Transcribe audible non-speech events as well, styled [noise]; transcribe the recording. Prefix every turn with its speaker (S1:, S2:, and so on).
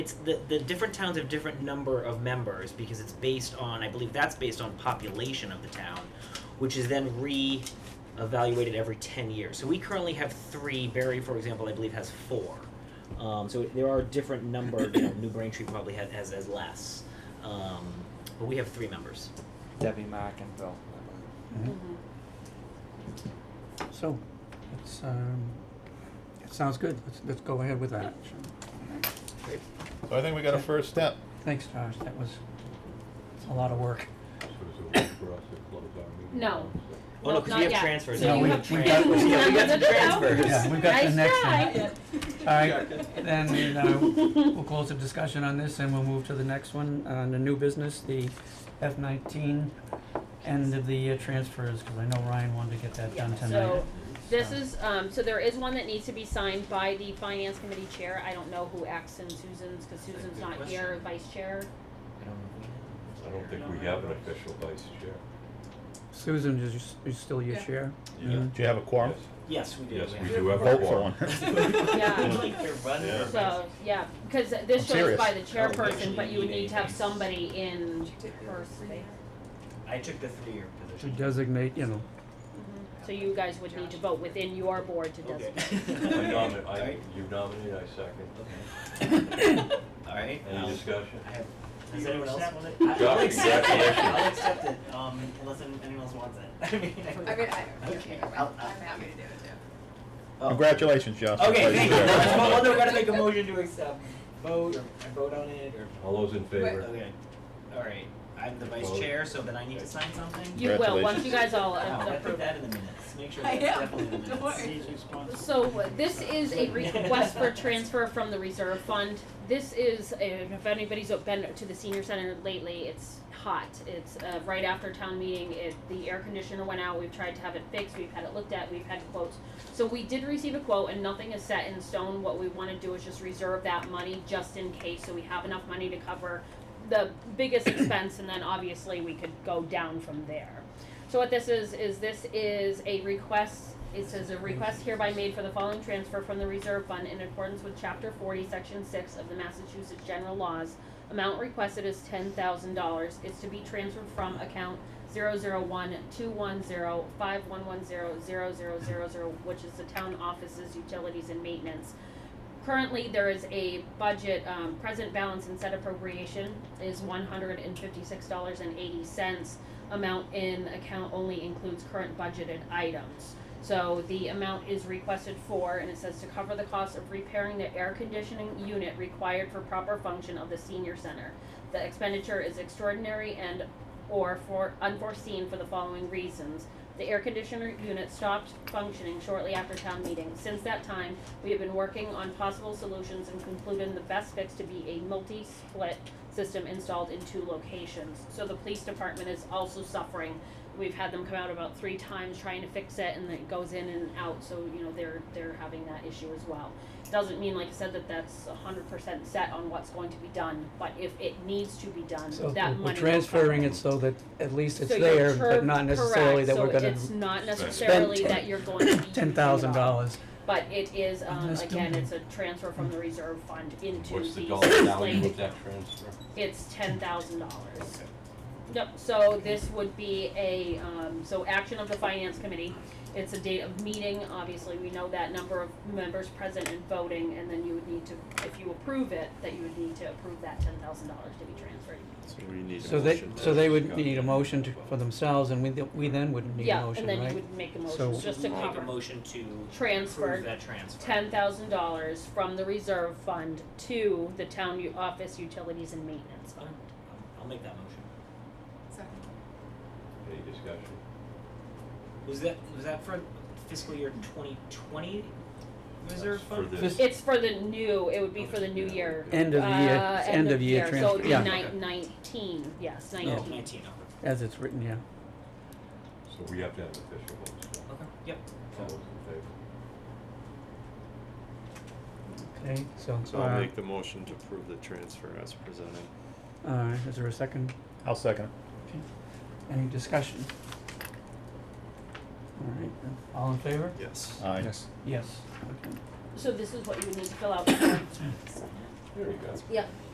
S1: it's the, the different towns have different number of members because it's based on I believe that's based on population of the town, which is then re evaluated every ten years. So we currently have three. Barry, for example, I believe has four. Um, so there are different number. You know, New Braintree probably has has, has less, um, but we have three members.
S2: Debbie Mack and Bill.
S3: Mm-hmm.
S4: Mm-hmm.
S3: So, it's, um, it sounds good, let's, let's go ahead with that.
S5: So I think we got a first step.
S3: Thanks, Josh, that was a lot of work.
S4: No.
S1: Oh no, because
S4: Nope,
S1: we
S4: not
S1: have
S4: yet.
S1: transfers.
S3: No,
S1: now.
S3: we-
S1: have
S3: we
S1: transfers.
S3: [laughs] got-
S1: yeah, we got some
S4: No, [laughs] no, no, no.
S1: transfers.
S3: Yeah, we've got the
S4: Nice
S3: next one.
S4: try.
S3: Alright, then, uh, we'll close the discussion on this and we'll move to the next one, on the new business, the F nineteen end of the year transfers, cause I know Ryan wanted to get that done
S4: Yeah,
S3: tonight.
S4: so This
S3: So-
S4: is, um, so there is one that needs to be signed by the finance committee chair. I don't know who acts in Susan's, cause Susan's
S1: Good
S4: not here, vice
S1: [laughs]
S4: chair.
S1: I don't know if we have-
S6: I don't think we have an official vice chair.
S3: Susan is, your s- is still your
S4: Yeah.
S3: chair?
S6: Yeah.
S3: Mhm.
S5: Do you have a quorum?
S1: Yes, we do.
S6: Yes,
S1: have.
S6: we do have a
S5: Vote for one.
S6: quorum.
S4: [laughs] Yeah.
S1: [laughs] Like your run
S6: Yeah.
S1: for-
S4: So, yeah, cause this shows
S5: serious.
S4: by the
S1: I don't think
S4: chairperson,
S1: we
S4: but you would
S1: need
S4: need to have
S1: anything.
S4: somebody in her space.
S1: I took the three-year
S3: To
S1: position.
S3: designate, you know,
S4: So you guys would need to vote within your board to
S1: Okay.
S3: [laughs]
S4: designate. [laughs]
S6: I nominate, I,
S1: Alright.
S6: you nominate, I second.
S7: [coughs]
S1: Alright. Um,
S6: Any discussion?
S7: I have.
S1: Does anyone else want it?
S7: I- I'll
S6: Josh,
S7: accept it,
S6: congratulations.
S7: I'll accept it, um, unless any- anyone else wants it, [laughs] I mean.
S8: I mean, I, I'm
S7: Okay. I'll- I'll-
S8: happy to do it too.
S7: Oh.
S5: Congratulations, Josh.
S7: Okay,
S5: That's
S7: thank you,
S5: fair.
S7: That's what- well, they're gonna make a motion to accept, vote, or vote on it, or,
S6: All those in favor?
S7: okay, alright, I'm the vice
S6: Vote.
S7: chair, so then I need to sign something?
S4: You will, once
S5: Congratulations.
S4: you guys all
S7: Wow,
S4: uh,
S7: I put
S4: approve it.
S7: that in the minutes, make sure
S8: I
S7: that's
S8: am.
S7: definitely
S4: [laughs]
S7: in the minutes.
S8: Don't worry.
S4: So this is a request for transfer from the reserve fund. This is, uh, if anybody's been to the senior center lately, it's hot. It's uh, right after town meeting, it, the air conditioner went out, we've tried to have it fixed, we've had it looked at, we've had quotes. So we did receive a quote and nothing is set in stone. What we wanna do is just reserve that money just in case, so we have enough money to cover the biggest expense and then obviously we could go down from there. So what this is, is this is a request, it says a request hereby made for the following transfer from the reserve fund in accordance with chapter forty, section six of the Massachusetts General Laws. Amount requested is ten thousand dollars, it's to be transferred from account zero zero one two one zero five one one zero zero zero zero zero, which is the town offices, utilities and maintenance. Currently, there is a budget, um, present balance and set appropriation is one hundred and fifty-six dollars and eighty cents amount in account only includes current budgeted items. So the amount is requested for, and it says to cover the cost of repairing the air conditioning unit required for proper function of the senior center. The expenditure is extraordinary and or for unforeseen for the following reasons. The air conditioner unit stopped functioning shortly after town meeting. Since that time, we have been working on possible solutions and concluded the best fix to be a multi-split system installed in two locations. So the police department is also suffering. We've had them come out about three times trying to fix it and it goes in and out, so you know, they're they're having that issue as well. Doesn't mean, like I said, that that's hundred percent set on what's going to be done, but if it needs to be done,
S3: so
S4: that money
S3: we're
S4: will
S3: transferring
S4: come.
S3: it so that at least it's
S4: So you're
S3: there, but
S4: term-
S3: not necessarily
S4: correct,
S3: that we're gonna
S4: So it's not
S3: spend
S4: necessarily
S3: ten-
S4: that you're going to be using
S3: ten
S4: it
S3: thousand
S4: all.
S3: dollars.
S4: But it is, um,
S3: Let's do
S4: again,
S3: it.
S4: it's a transfer from the reserve fund into
S6: What's the
S4: the
S6: dollar value
S4: slated-
S6: of that transfer?
S4: It's ten thousand dollars. Yep, so this would be a, um, so action of the finance committee, it's a date of meeting, obviously, we know that number of members present and voting, and then you would need to, if you approve it, that you would need to approve that ten thousand dollars to be transferred.
S3: So they, so they would need a motion to, for themselves, and we, th- we then wouldn't need a
S4: Yeah,
S3: motion,
S4: and then you
S3: right?
S4: would make a
S3: So-
S4: motion, just to
S1: Make a
S4: cover,
S1: motion to approve
S4: transfer
S1: that transfer.
S4: ten thousand dollars from the reserve fund to the town u- office utilities and maintenance fund.
S1: I'll make that motion.
S8: Second.
S6: Any discussion?
S1: Was that, was that for fiscal year twenty twenty reserve
S6: That's
S1: fund?
S6: For
S3: Just-
S6: this,
S4: It's for the new, it would be for the new year.
S3: End of the year,
S4: Uh,
S3: it's end of year
S4: So it would
S3: transfer,
S4: be
S3: yeah,
S4: nine, nineteen, yes,
S1: Oh,
S4: nineteen.
S1: 19, okay.
S3: as it's written, yeah.
S6: so we have to have an official vote, so
S1: Okay, yep.
S6: all those in favor?
S3: Okay, so,
S9: So I'll
S3: uh,
S9: make the motion to approve the transfer as presented.
S3: uh, is there a second,
S5: I'll second it.
S3: any discussion? All right, all in favor?
S9: Yes.
S5: Aye.
S3: Yes. Okay. [coughs]
S4: So this is what you would need to fill out before
S10: There you go.
S6: Yeah.